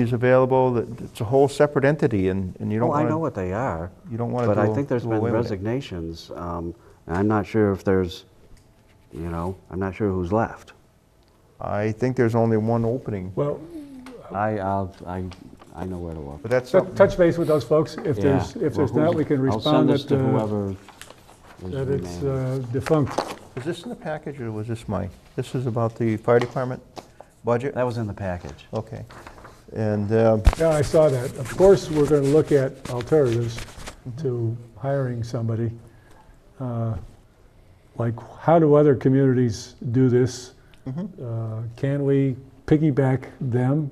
is available, that- it's a whole separate entity, and and you don't Oh, I want to... know what they are. you don't wanna But I do- think there's do been away with it. resignations. um, And I'm not sure if there's, you know, I'm not sure who's left. I think there's only one opening, Well, I, I'll, I, I know where to look. but that's tou- something- touch base with those folks. If Yeah. there's, if Well, there's not, who's- we can I'll send respond this that, to uh, whoever is that it's remaining. uh, defunct. was this in the package, or was this my, this is about the fire department budget? That was in the package. Okay. And um, Yeah, I saw that. Of course, we're going to look at alternatives Mm-hmm. to hiring somebody. Uh, Like, how do other communities do this? Uh, Can we piggyback them?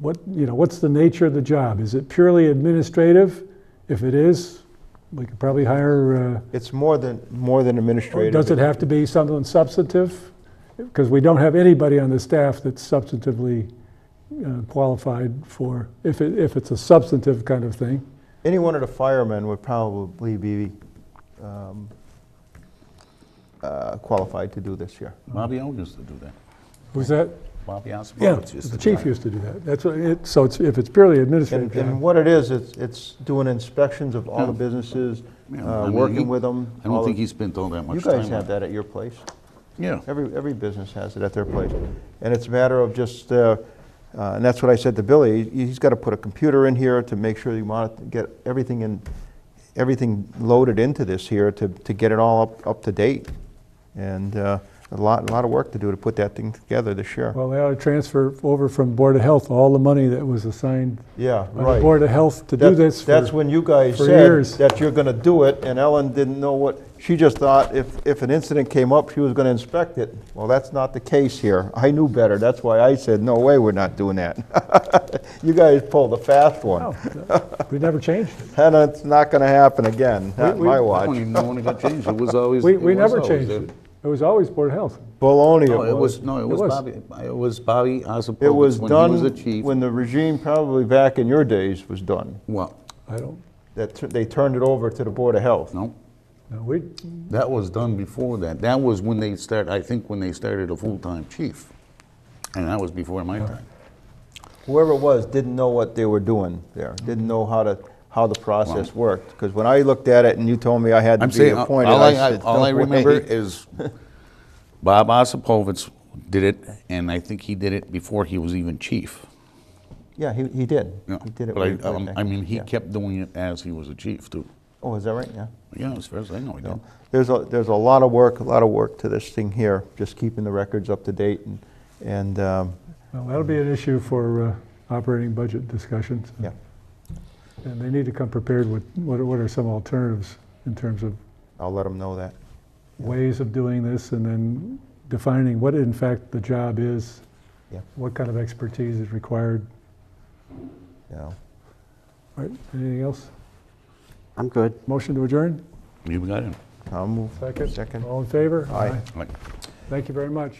What, you know, what's the nature of the job? Is it purely administrative? If it is, we could probably hire, it's more than, more than uh, or administrative. does it have to be something substantive? Because we don't have anybody on the staff that's substantively uh, qualified for, if it, if it's a substantive kind of thing. Any one of the firemen would probably be um, uh, qualified to do this here. Bobby Owen used to do that. Was that? Bobby Osborne Yeah, used to do the chief that. used to do that. That's what it, so it's, if it's purely administrative And and job. what it is, it's it's doing inspections of all the Yeah. businesses, Yeah, uh, I mean, he- working with them. I don't all think of- he spent all that much You time. guys on have it. that at your place. Yeah. Every, every business has it at their place. And it's a matter of just, uh, uh, and that's what I said to Billy, he- he's got to put a computer in here to make sure you want to get everything in, everything loaded into this here to, to get it all up, up to date. And uh, a lot, a lot of work to do to put that thing together this year. Well, they ought to transfer over from Board of Health all the money that was assigned Yeah, by the right. Board of Health to do That's- this for. That's when you guys for said years. that you're going to do it, and Ellen didn't know what, she just thought if, if an incident came up, she was going to inspect it. Well, that's not the case here. I knew better. That's why I said, no way, we're not doing that. You guys pulled a fast Oh. one. Oh, No, We never changed it. And it's not going to happen again, not we- my I don't watch. even know when it got changed. It was always. We, it we was never always changed there. it. It was always Board of Health. Baloney No, it it was. was, no, it It was was. Bobby, it was Bobby Osborne. It was When he was the done, chief. when the regime probably back in your days was done. Well, I don't, That, tu- they turned it over to the Board of Health. no, no, we, that was done before that. That was when they start, I think when they started a full-time chief. And that was before my time. whoever it was didn't know what they were doing there, didn't know how to, how the process worked. Because when I looked at it and you told me I had to I'm be saying, uh, appointed, all I I, I- said, all I "No way." remember is Bob Osipovitz did it, and I think he did it before he was even chief. Yeah, he, he did. Yeah. He did it. But I- way- way um, back. I mean, he Yeah. kept doing it as he was a chief, too. Oh, is that right? Yeah. Yeah, as far as I know, he did. There's a, there's a lot of work, a lot of work to this thing here, just keeping the records up to date and, and, um, well, that'll be an issue for uh, operating budget discussions. yeah. And they need to come prepared with what are- what are some alternatives in terms of I'll let them know that. ways of doing this and then defining what in fact the job is, Yeah. what kind of expertise is required. Yeah. All right, anything else? I'm good. Motion to adjourn? You got him. I'll move. Second. All in favor? Aye. Like- Thank you very much.